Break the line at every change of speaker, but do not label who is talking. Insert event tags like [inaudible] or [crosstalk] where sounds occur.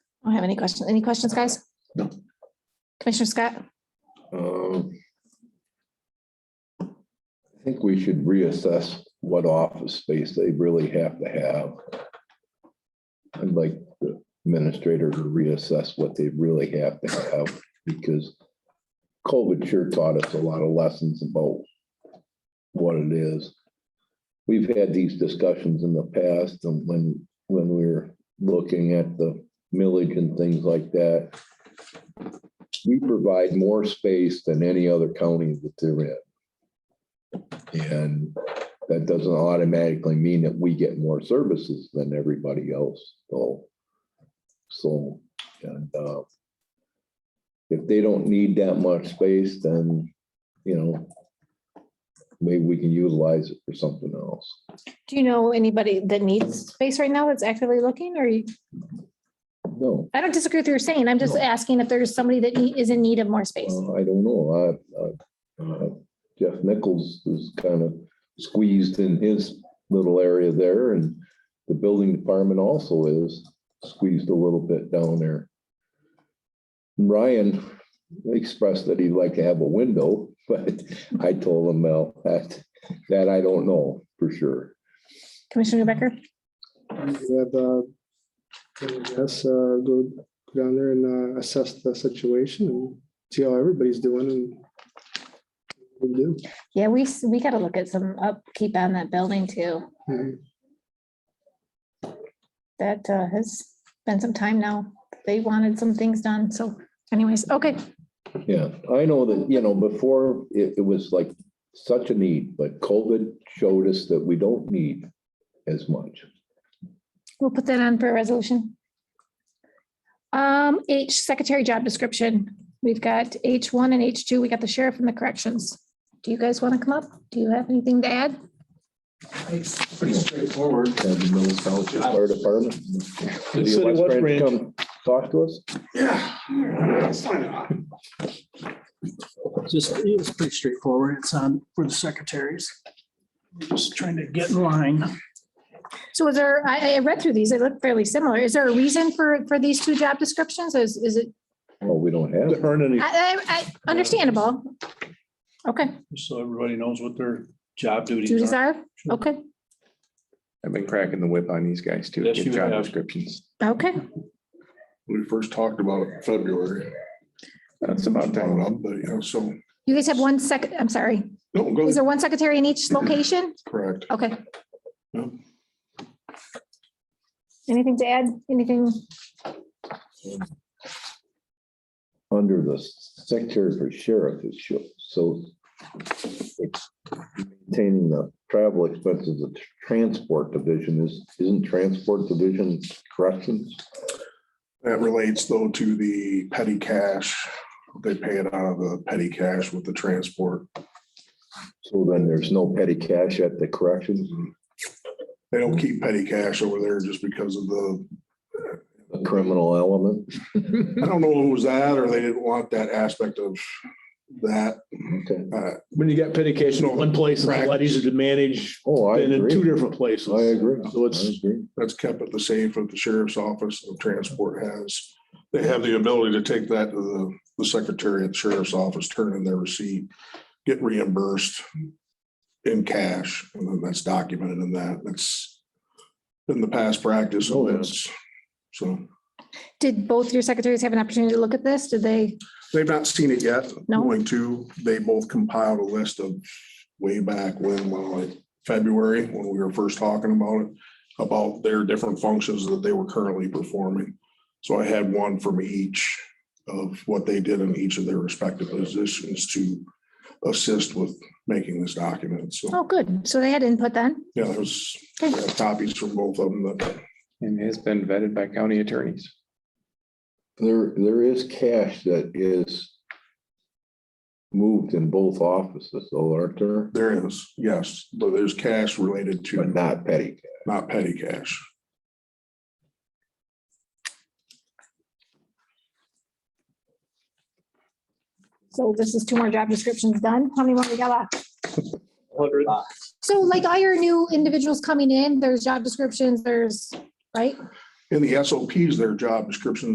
don't have any questions. Any questions, guys?
No.
Commissioner Scott?
Um, I think we should reassess what office space they really have to have. I'd like the administrator to reassess what they really have to have, because COVID sure taught us a lot of lessons about what it is. We've had these discussions in the past, and when, when we were looking at the millage and things like that, we provide more space than any other county that they're in. And that doesn't automatically mean that we get more services than everybody else, though. So, and, uh, if they don't need that much space, then, you know, maybe we can utilize it for something else.
Do you know anybody that needs space right now that's actively looking or you,
No,
I don't disagree with what you're saying. I'm just
No.
asking if there's somebody that nee- is in need of more space.
uh, I don't know. I, I, uh, Jeff Nichols is kind of squeezed in his little area there and the building department also is squeezed a little bit down there. Ryan expressed that he'd like to have a window, [laughs] but I told him, well, that, that I don't know for sure.
Commissioner Becker?
Have, uh, yes, uh, go down there and uh, assess the situation and see how everybody's doing and we do.
Yeah, we, s- we gotta look at some upkeep on that building too.
Mhm.
That uh, has been some time now. They wanted some things done. So anyways, okay.
Yeah, I know that, you know, before it, it was like such a need, but COVID showed us that we don't need as much.
We'll put that on for a resolution. Um, H, secretary job description. We've got H one and H two. We got the sheriff and the corrections. Do you guys want to come up? Do you have anything to add?
It's pretty straightforward.
Have the Mills Township Fire Department.
The
City of West Branch
Branch.
come talk to us?
Yeah. It's fine.
Just, it's pretty straightforward. It's on for the secretaries. We're Just trying to get in line.
So is there, I, I read through these. They look fairly similar. Is there a reason for, for these two job descriptions? Is, is it,
Well, we don't
to
have.
earn any,
I, I, I, understandable. Okay,
so everybody knows what their job
duties
duties are.
are, okay,
I've been cracking the whip on these guys too.
Yes,
Get
you
job
have.
descriptions.
okay.
We first talked about it in February,
That's about
brought it
time.
up, but you know, so,
You guys have one second, I'm sorry.
no, go,
Is there one secretary in each location?
[clears throat] correct.
Okay.
Yeah.
Anything to add? Anything?
Under the secretary for sheriff, it's sho- so it's maintaining the travel expenses of the transport division is, isn't transport division corrections?
That relates though to the petty cash. They pay it out of the petty cash with the transport.
So then there's no petty cash at the corrections,
They don't keep petty cash over there just because of the,
the criminal element.
I don't know who was that or they didn't want that aspect of that.
Okay.
Uh,
When you got petty cash in one place, it's a lot easier to manage
Oh, I
than in two
agree.
different places.
I agree.
So it's-
I agree.
That's kept at the safe of the sheriff's office and transport has. They have the ability to take that to the- the secretary at the sheriff's office, turn in their receipt, get reimbursed in cash, and then that's documented in that. That's been the past practice. So that's, so
Did both your secretaries have an opportunity to look at this? Did they?
they've not seen it yet.
No.
Going to, they both compiled a list of way back when, well, like February, when we were first talking about it, about their different functions that they were currently performing. So I had one from each of what they did in each of their respective positions to assist with making this document. So,
Oh, good. So they had input then?
yeah, there's
Okay.
yeah, copies from both of them that
And it has been vetted by county attorneys.
There, there is cash that is moved in both offices, though, aren't there?
there is, yes, but there's cash related
But
to,
not petty. cash.
not petty cash.
So this is two more job descriptions done. How many more we got left?
Hundred.
So like all your new individuals coming in, there's job descriptions, there's, right?
In the SOPs, their job descriptions